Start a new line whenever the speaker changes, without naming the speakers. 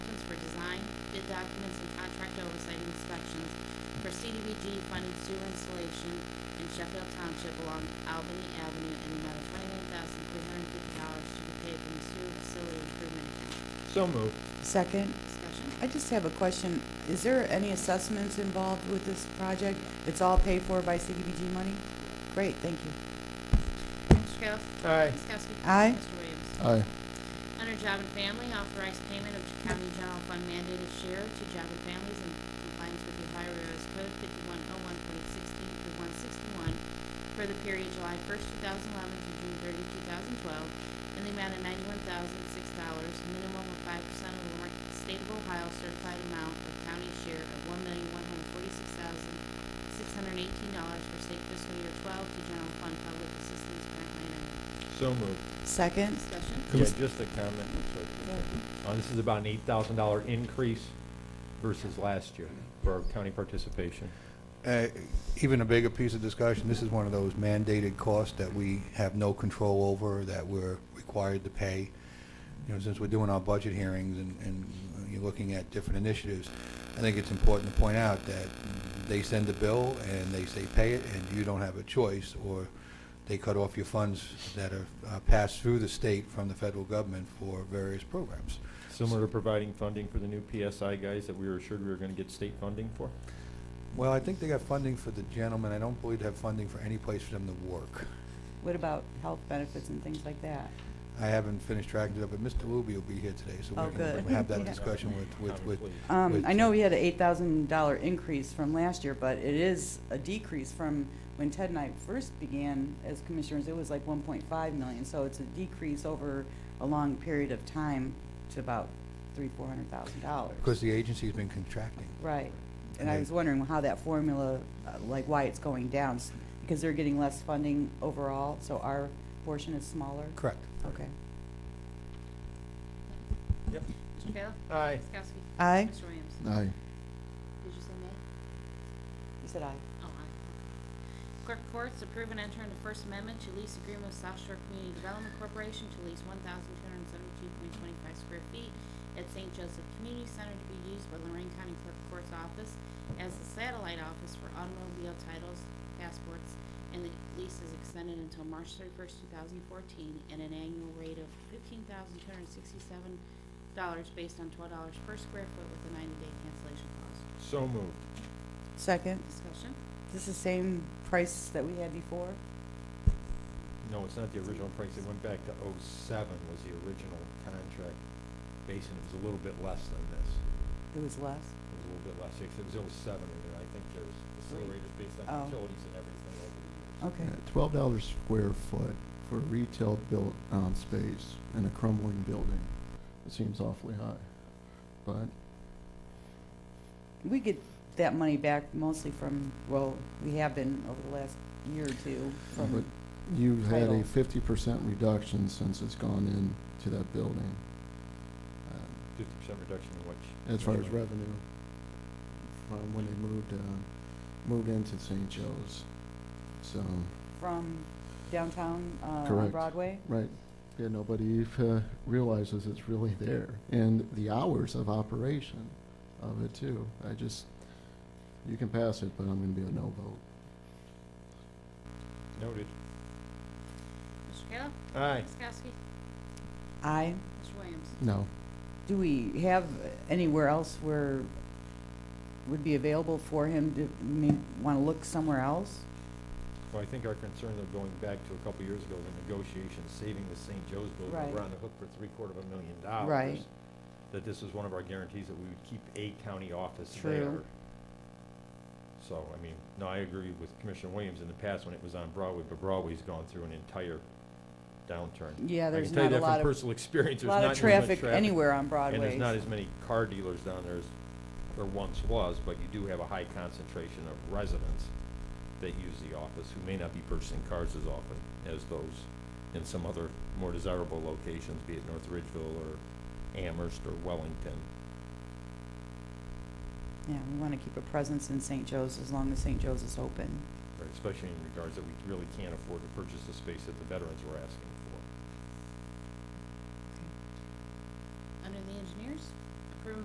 documents and contract oversight inspections for CDBG funded sewer installation in Sheffield Township along Albany Avenue in the amount of twenty-one thousand three hundred fifty dollars to be paid from the sewer facility improvement account.
So moved.
Second,
Discussion.
I just have a question. Is there any assessments involved with this project? It's all paid for by CDBG money? Great, thank you.
Mr. Kayla?
Aye.
Ms. Kowski?
Aye.
Mr. Williams?
aye,
Under Job and Family, authorize payment of county general fund mandated share to Job and Families in compliance with the Ohio Revised Code fifty-one oh one point sixteen through one sixty-one for the period July first, two thousand eleven to June 30, 2012, in the amount of ninety-one thousand six dollars, minimum of five percent of the Warren State of Ohio certified amount of county share of one million one hundred forty-six thousand six hundred eighteen dollars for state fiscal year twelve to general fund public assistance grant line item.
So moved.
Second,
Discussion?
Can we
Yeah,
s-
just a comment. I'm sorry. Uh, this is about an eight thousand dollar increase versus last year for our county participation.
Uh, Even a bigger piece of discussion, this is one of those mandated costs that we have no control over, that we're required to pay. You know, since we're doing our budget hearings and, and you're looking at different initiatives, I think it's important to point out that they send the bill and they say pay it, and you don't have a choice, or they cut off your funds that are uh, passed through the state from the federal government for various programs.
Similar to providing funding for the new PSI guys that we were assured we were gonna get state funding for.
Well, I think they got funding for the gentlemen, I don't believe they have funding for any place for them to work.
what about health benefits and things like that?
I haven't finished tracking it up, but Mr. Luby will be here today, so
Oh,
we can
good.
have that
Yeah.
discussion with, with, with,
Um,
With-
I know we had an eight thousand dollar increase from last year, but it is a decrease from when Ted and I first began as commissioners, it was like one point five million, so it's a decrease over a long period of time to about three, four hundred thousand dollars.
because the agency's been contracting.
Right, and I was wondering how that formula, uh, like why it's going down, s- because they're getting less funding overall, so our portion is smaller?
Correct.
Okay.
Mr. Kayla?
Aye.
Ms. Kowski?
Aye.
Mr. Williams?
Aye.
Did you say nay?
You said aye.
Oh, aye. Clerk of Courts, approve and enter into First Amendment to lease agreement with South Shore Community Development Corporation to lease one thousand two hundred and seventy-two point twenty-five square feet at St. Joseph Community Center to be used by Lorraine County Clerk of Courts Office as the satellite office for automobile titles, passports, and the lease is extended until March thirty-first, two thousand fourteen, at an annual rate of fifteen thousand two hundred and sixty-seven dollars based on twelve dollars per square foot with a ninety-day cancellation clause.
So moved.
Second,
Discussion?
this is the same price that we had before?
No, it's not the original price. It went back to oh seven was the original contract base, and it was a little bit less than this.
It was less?
It was a little bit less, because it was oh seven, and then I think there's accelerators based
Oh.
on utilities and everything over the years.
Okay,
Twelve dollars square foot for retail built, um, space in a crumbling building. It seems awfully high, but
we get that money back mostly from, well, we have been over the last year or two
But
from,
you've had
Title.
a fifty percent reduction since it's gone in to that building. uh,
Fifty percent reduction in which?
As far as revenue, from when they moved, uh, moved into St. Joe's. So,
from downtown, uh, on
Correct.
Broadway?
right, yeah, nobody uh, realizes it's really there. And the hours of operation of it too. I just, you can pass it, but I'm gonna be a no vote.
Noted.
Mr. Kayla?
Aye.
Ms. Kowski?
Aye.
Mr. Williams?
No.
Do we have anywhere else where would be available for him to, I mean, want to look somewhere else?
Well, I think our concern of going back to a couple years ago, the negotiations, saving the St. Joe's building,
Right.
we're on the hook for three quarter of a million dollars.
Right.
That this is one of our guarantees that we would keep a county office
True.
there. So, I mean, no, I agree with Commissioner Williams in the past when it was on Broadway, but Broadway's gone through an entire downturn.
Yeah,
I
there's
can tell you
not a
that
lot
from
of,
personal experience, there's not
lot
as
of
much
traffic anywhere on
And
Broadway.
there's not as many car dealers down there as there once was, but you do have a high concentration of residents that use the office who may not be purchasing cars as often as those in some other more desirable locations, be it North Ridgeville or Amherst or Wellington.
Yeah, we want to keep a presence in St. Joe's as long as St. Joe's is open.
right, Especially in regards that we really can't afford to purchase the space that the veterans were asking for.